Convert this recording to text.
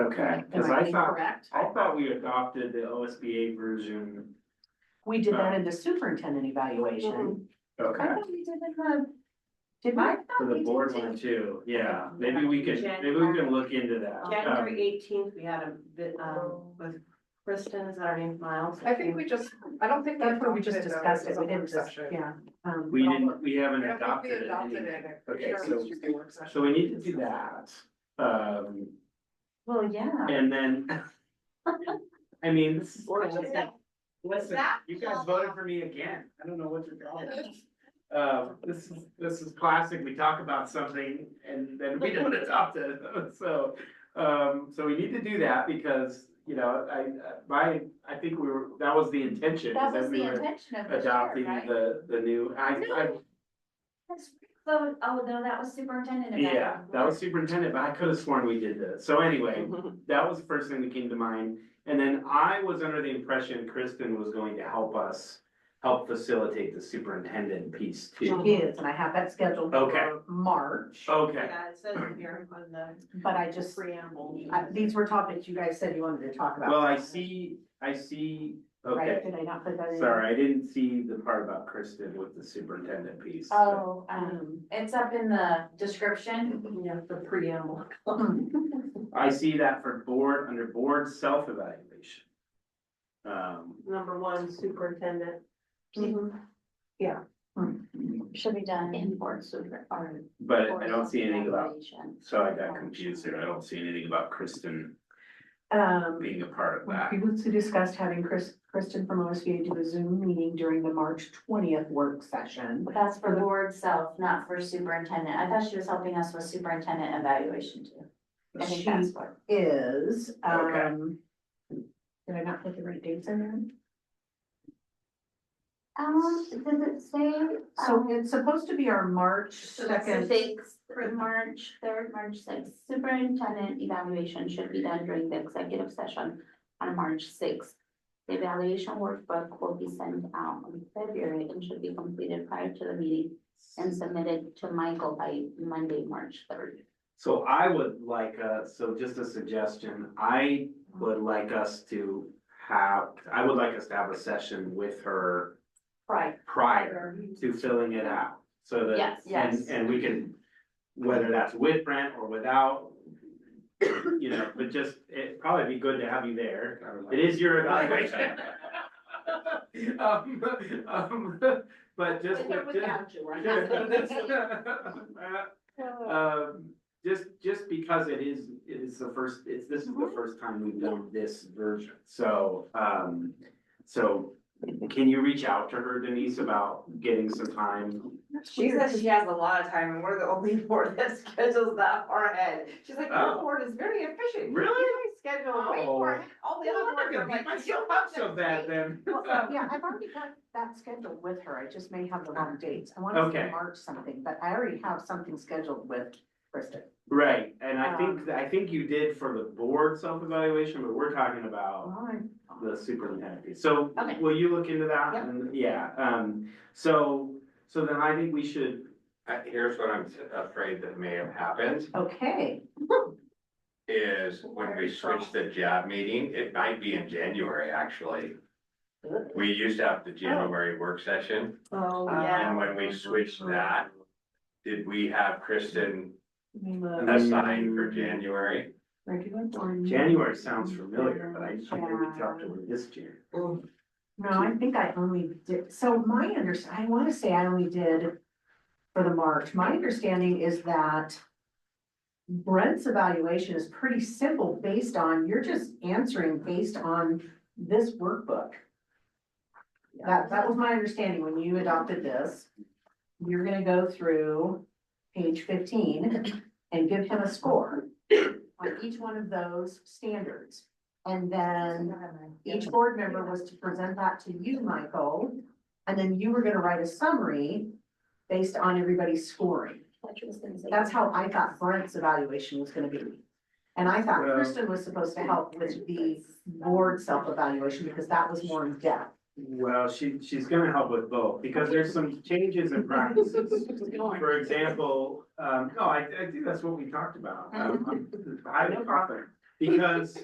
Okay, Am cause I being thought, correct? I thought we adopted the OSBA version. We did that in the superintendent evaluation. Mhm. Okay, I thought we did it in the, did I? for the board one too, yeah, maybe we could, maybe we can look into that. January Um, eighteenth, we had a, vi- um, with Kristen, is that her name, Miles? I think we just, I don't think. That's what we just adopted it, though. discussed It it, was we a didn't work just, session. yeah. um, We didn't, we I haven't don't think we adopted it. adopted any- it. I'm Okay, sure it so- was just a work session. So we need to do that, um, Well, yeah. and then. I mean, this is. Or just that- Listen, That- you guys voted for me again. I don't know what your problem is. Uh, this is, this is classic. We talk about something and then we don't adopt it. So, um, so we need to do that because, you know, I, I- my, I think we were, that was the intention. That is was we the were intention of the chair, Adopting right? the, the new, I, I, That's, so, oh, no, that was superintendent. evaluation. yeah, that was superintendent, but I could have sworn we did this. So anyway, that was the first thing that came to mind. And then I was under the impression Kristen was going to help us, help facilitate the superintendent piece too. She is, and I have that scheduled Okay. Oh. for March, Okay, Yeah, it says it here on the but I just, preamble. I- these were topics you guys said you wanted to talk about. well, I see, I see, Right, okay, did I not put that in? sorry, I didn't see the part about Kristen with the superintendent piece. so- Oh, um, Um, Mm-hmm. it's up in the description. Yeah, the preamble. I see that for board, under board self-evaluation. Um, Number one, superintendent. Mm-hmm. Should be done. In board super, or. but I don't see anything about, so I got confused there, I don't see anything about Kristen um, being a part of We that. previously discussed having Chris, Kristen from OSBA do a Zoom meeting during the March twentieth work session. That's for board self, not for superintendent. I thought she was helping us with superintendent evaluation too. I think She that's what. is, Okay. um. Did I not put the right dates in there? Um, does it say? So it's supposed to be our March second. Sixth, March third, March sixth, superintendent evaluation should be done during the executive session on March sixth. The evaluation workbook will be sent out in February and should be completed prior to the meeting and submitted to Michael by Monday, March third. So I would like, uh, so just a suggestion, I would like us to have, I would like us to have a session with her Right. prior to filling it out, so that. Yes. And, Yes. and we can, whether that's with Brent or without, you know, but just, it'd probably be good to have you there. It is your evaluation. Um, um, But just, With or just- without you, right? Um, just, just because it is, it is the first, it's, this is the first time we've done this version, so, um, so can you reach out to her Denise about getting some time? She says she has a lot of time and we're the only board that schedules that far ahead. She's like, our Oh. board is very efficient. Really? Oh. You guys schedule way far ahead. All the other boards are like. then. uh, Yeah, I've already got that scheduled with her. I just may have the wrong dates. I want to Okay. say March something, but I already have something scheduled with Kristen. Right, and I think, I think you did for the board self-evaluation, but we're talking about Uh, the superintendent piece. So Okay. will you look into that? Yep. And yeah, um, so, so then I think we should, Uh, here's what I'm afraid that may have happened, Okay, is when we switched the job meeting, it might be in January, actually. We used to have the January work session, Oh, and when we switched that, did we have Kristen let me look. assigned for January? Regular board meeting. January sounds familiar, but I just don't think we talked to her this year. No, I think I only did, so my under, I want to say I only did for the March. My understanding is that Brent's evaluation is pretty simple based on, you're just answering based on this workbook. That, that was my understanding when you adopted this. You're gonna go through page fifteen and give him a score on each one of those standards. And then each board member was to present that to you, Michael. And then you were gonna write a summary based on everybody's scoring. That's how I thought Brent's evaluation was gonna be. And I thought Well- Kristen was supposed to help with the board self-evaluation because that was more in depth. Well, she, she's gonna help with both, because there's some changes in practices. For oh, example, um, no, I, I think that's what we talked about. Um, I'm I'm confident. because